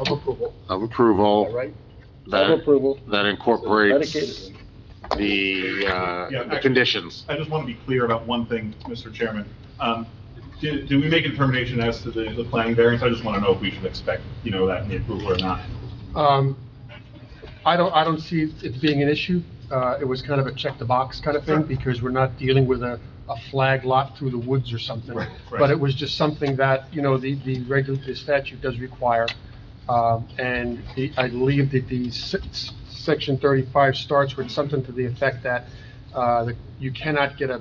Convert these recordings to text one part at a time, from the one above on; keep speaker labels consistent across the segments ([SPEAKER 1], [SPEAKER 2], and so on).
[SPEAKER 1] of approval,
[SPEAKER 2] of
[SPEAKER 1] all
[SPEAKER 2] approval
[SPEAKER 1] right?
[SPEAKER 3] Of
[SPEAKER 2] that,
[SPEAKER 3] approval.
[SPEAKER 2] that incorporates the, uh,
[SPEAKER 4] Yeah,
[SPEAKER 2] the
[SPEAKER 4] I-
[SPEAKER 2] conditions.
[SPEAKER 4] I just want to be clear about one thing, Mr. Chairman. Um, Did did we make a determination as to the the planning variance? I just want to know if we should expect, you know, that in the approval or not.
[SPEAKER 1] Um, I don't, I don't see it being an issue. Uh, it was kind of a check the box kind of thing, because we're not dealing with a, a flag lot through the woods or something.
[SPEAKER 4] Right, right.
[SPEAKER 1] But it was just something that, you know, the, the regu, the statute does require. Um, and the, I believe that the six, section thirty-five starts with something to the effect that, uh, that you cannot get a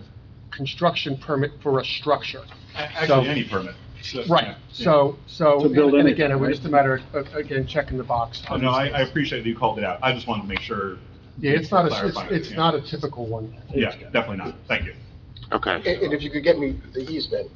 [SPEAKER 1] construction permit for a structure.
[SPEAKER 4] A- Actually, any permit. So, yeah,
[SPEAKER 1] Right,
[SPEAKER 4] yeah.
[SPEAKER 1] so, so,
[SPEAKER 3] To build
[SPEAKER 1] and
[SPEAKER 3] anything,
[SPEAKER 1] again, it was
[SPEAKER 3] right?
[SPEAKER 1] just a matter of, again, checking the box.
[SPEAKER 4] Oh, No, I I appreciate that you called it out. I just wanted to make sure.
[SPEAKER 1] Yeah, it's not, a-
[SPEAKER 4] Clarify it,
[SPEAKER 1] it's, it's
[SPEAKER 4] yeah.
[SPEAKER 1] not a typical one.
[SPEAKER 4] Yeah, definitely not. Thank you.
[SPEAKER 2] Okay.
[SPEAKER 5] And and if you could get me the easement,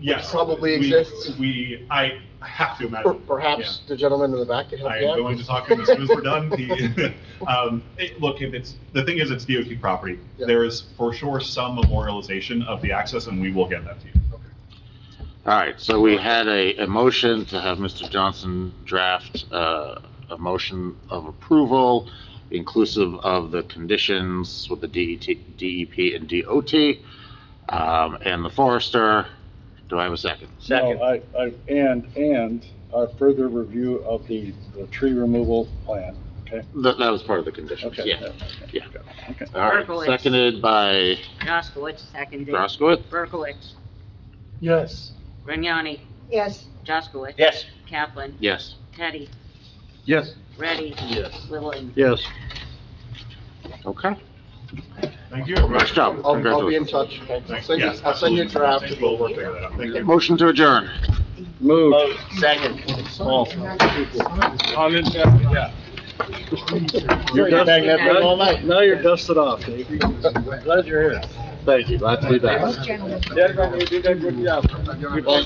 [SPEAKER 4] Yes. we-
[SPEAKER 5] Probably exists.
[SPEAKER 4] We, I have to
[SPEAKER 5] per-
[SPEAKER 4] imagine.
[SPEAKER 5] perhaps the gentleman in the back could
[SPEAKER 4] Yeah.
[SPEAKER 5] help
[SPEAKER 4] I
[SPEAKER 5] you
[SPEAKER 4] am
[SPEAKER 5] out?
[SPEAKER 4] going to talk to him as soon as we're done. He- um, it- Look, if it's, the thing is, it's DOT property.
[SPEAKER 5] Yeah.
[SPEAKER 4] There is for sure some memorialization of the access, and we will get that to you.
[SPEAKER 2] All right, so we had a, a motion to have Mr. Johnson draft, uh, a motion of approval inclusive of the conditions with the E DET, DEP and DOT, um, and the forester. Do I have a second?
[SPEAKER 3] Second. I, I, and, and a further review of the, the tree removal plan, okay?
[SPEAKER 2] That, that was part of the conditions,
[SPEAKER 3] Okay.
[SPEAKER 2] yeah. yeah.
[SPEAKER 3] Okay.
[SPEAKER 2] All right,
[SPEAKER 6] Berkowitz.
[SPEAKER 2] seconded by
[SPEAKER 6] Jaskowitz, seconded.
[SPEAKER 2] Groskowitz?
[SPEAKER 6] Berkowitz,
[SPEAKER 1] Yes.
[SPEAKER 6] Grignani,
[SPEAKER 7] yes,
[SPEAKER 6] Jaskowitz.
[SPEAKER 3] Yes.
[SPEAKER 6] Kaplan,
[SPEAKER 2] Yes.
[SPEAKER 6] Teddy,
[SPEAKER 3] Yes.
[SPEAKER 6] Ready,
[SPEAKER 3] Yes.
[SPEAKER 6] Littleton.
[SPEAKER 3] Yes.
[SPEAKER 2] Okay.
[SPEAKER 4] Thank you.
[SPEAKER 2] Nice job.
[SPEAKER 5] I'll, I'll be in
[SPEAKER 2] Congratulations.
[SPEAKER 5] touch, okay? I'll
[SPEAKER 4] Thanks.
[SPEAKER 5] send you,
[SPEAKER 4] Yes,
[SPEAKER 5] I'll send you a draft.
[SPEAKER 4] absolutely. We'll work that out. Thank you.
[SPEAKER 2] Motion to adjourn.
[SPEAKER 3] Move. You're
[SPEAKER 6] You're
[SPEAKER 3] dusting
[SPEAKER 6] dusting
[SPEAKER 3] that
[SPEAKER 6] that
[SPEAKER 3] all night. Now you're dusted off, Dave. Glad you're here.
[SPEAKER 2] Thank you, glad to be back.
[SPEAKER 7] most gentlemen.
[SPEAKER 3] Yeah, you did a good job.